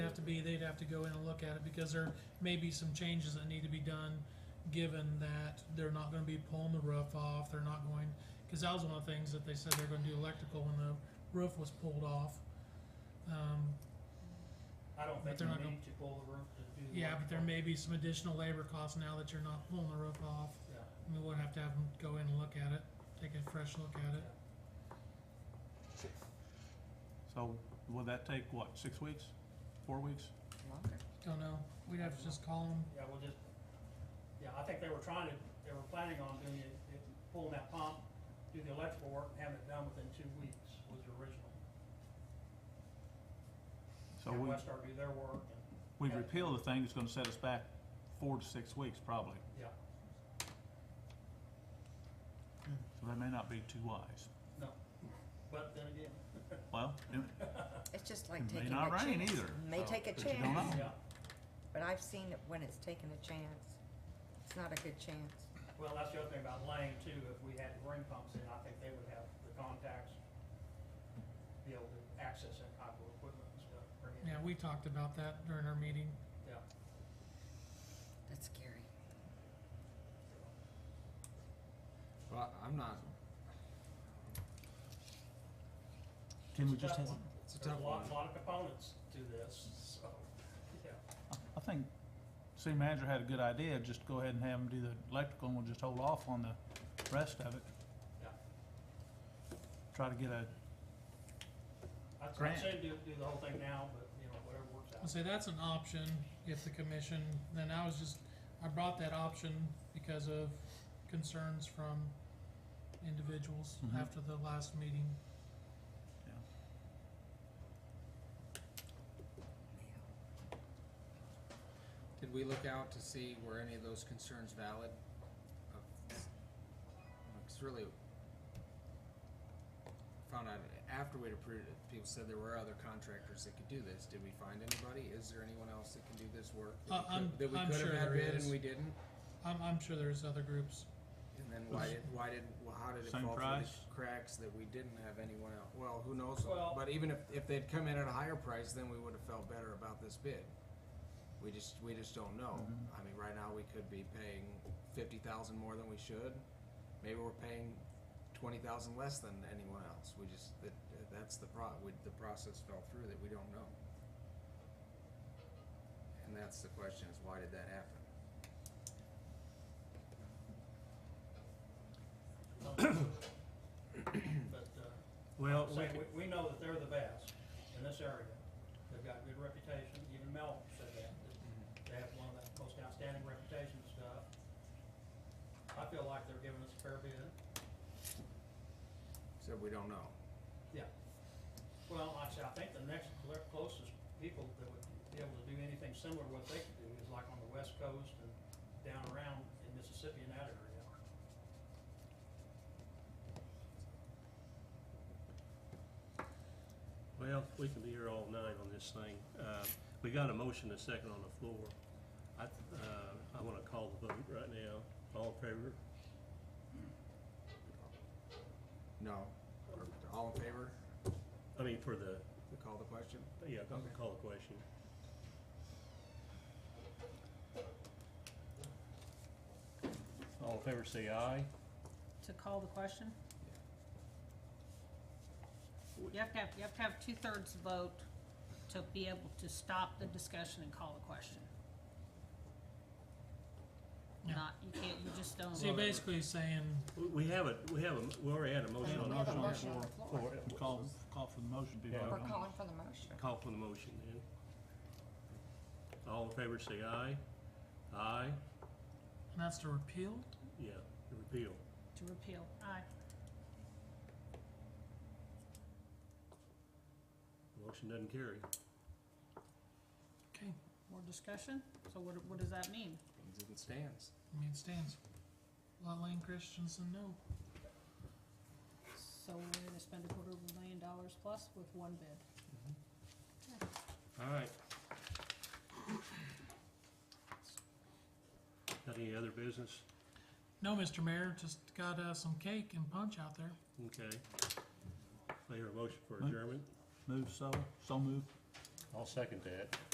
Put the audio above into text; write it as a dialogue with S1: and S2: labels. S1: have to go in and look at it because there may be some changes that need to be done, given that they're not gonna be pulling the roof off, they're not going, cause that was one of the things that they said they're gonna do electrical when the roof was pulled off. Um,
S2: I don't
S1: But
S2: think
S1: they're
S2: you
S1: not gonna-
S2: need to pull the roof to do the.
S1: yeah, but there
S2: electrical.
S1: may be some additional labor costs now that you're not pulling the roof off.
S2: Yeah.
S1: I mean, we'll have to have them go in and look at it, take a fresh look at it.
S3: So will that take, what, six weeks, four weeks?
S4: Longer.
S1: Don't know, we'd have to just call them,
S2: Yeah, we'll just, yeah, I think they were trying to, they were planning on doing it, it- pulling that pump, do the electrical work, and having it done within two weeks was the original.
S3: So
S2: Have
S3: we,
S2: Westar do their work and,
S3: we repeal the thing, it's gonna set us back four to six weeks probably,
S2: yeah,
S3: so that may not be too wise.
S2: but then again,
S3: Well, it-
S4: It's just like
S3: it may
S4: taking a
S3: not
S4: chance.
S3: rain either.
S4: May
S3: so-
S4: take a
S3: but you don't
S4: chance,
S3: know.
S2: yeah,
S4: but I've seen it when it's taken a chance. It's not a good chance.
S2: well, that's the other thing about Lane too, if we had ring pumps in, I think they would have the contacts, be able to access that type of equipment and stuff, bring it,
S1: yeah, we talked about that during our meeting.
S2: yeah.
S4: That's scary.
S5: Well, I- I'm not,
S3: Can we
S2: It's a
S3: just
S2: tough
S3: have,
S2: one.
S5: it's a
S2: There's
S5: tough
S2: a
S5: one.
S2: lot, lot of components to this, so, yeah,
S3: I think city manager had a good idea, just go ahead and have them do the electrical and we'll just hold off on the rest of it.
S2: Yeah.
S3: Try to get a,
S2: I'd I'd
S3: Grant.
S2: say do, do the whole thing now, but, you know, whatever works out.
S1: I'll say that's an option if the commission, then I was just, I brought that option because of concerns from individuals
S3: Mhm.
S1: after the last meeting.
S5: did we look out to see were any of those concerns valid? Uh, It's really found out after we'd approved it, people said there were other contractors that could do this. Did we find anybody? Is there anyone else that can do this work? that we
S1: Uh, I'm-
S5: could- that we
S1: I'm
S5: could have
S1: sure
S5: had
S1: there
S5: bid
S1: is.
S5: And we didn't?
S1: I'm, I'm sure there's other groups.
S5: And then why did, why did, well, how did it
S3: Same
S5: fall through
S3: price?
S5: the cracks that we didn't have anyone else? Well, who knows?
S2: Well-
S5: But even if, if they'd come in at a higher price, then we would have felt better about this bid. We just, we just don't know.
S3: Mhm.
S5: I mean, right now, we could be paying fifty thousand more than we should. Maybe we're paying twenty thousand less than anyone else. We just, that, that's the pro, we, the process fell through that we don't know. And that's the question is why did that happen?
S2: But, uh,
S3: well, we
S2: say,
S3: could-
S2: we, we know that they're the best in this area. They've got good reputation, even Mel said that, that they have one of the most outstanding reputation and stuff. I feel like they're giving us a fair bid.
S5: So we don't know.
S2: Well, like I said, I think the next cl- closest people that would be able to do anything similar to what they could do is like on the west coast and down around in Mississippi and that area.
S6: Well, we can be here all night on this thing. Uh, We got a motion and a second on the floor. I, uh, I want to call the vote right now. All in favor?
S5: No. Or All in favor?
S6: I mean, for the,
S5: We call the question?
S6: yeah, I'll call the question. All in favor, say aye.
S7: to call the question? You have to have, you have to have two-thirds vote to be able to stop the discussion and call the question.
S1: Yeah.
S7: Not, you can't, you just don't.
S1: So you're basically saying,
S6: We- We have a, we have a, we already had a motion on
S4: We
S6: the
S4: have a
S6: floor.
S4: motion on the floor.
S6: For-
S3: call, call for the motion to be
S6: Yeah.
S3: voted
S4: We're
S3: on.
S4: calling for the motion.
S6: Call for the motion then. All in favor, say aye. Aye,
S1: and that's to repeal?
S6: yeah, repeal.
S7: To repeal, aye.
S6: Motion doesn't carry.
S1: Okay,
S7: More discussion? So what, what does that mean?
S5: Means it stands.
S1: I mean, it stands. Lot Lane Christensen, no.
S7: So we're gonna spend a quarter of a million dollars plus with one bid.
S6: All right. Got any other business?
S1: No, Mr. Mayor, just got, uh, some cake and punch out there.
S6: Okay. I hear a motion for
S3: Mo-
S6: adjournment.
S3: Move so, so move.
S6: I'll second that.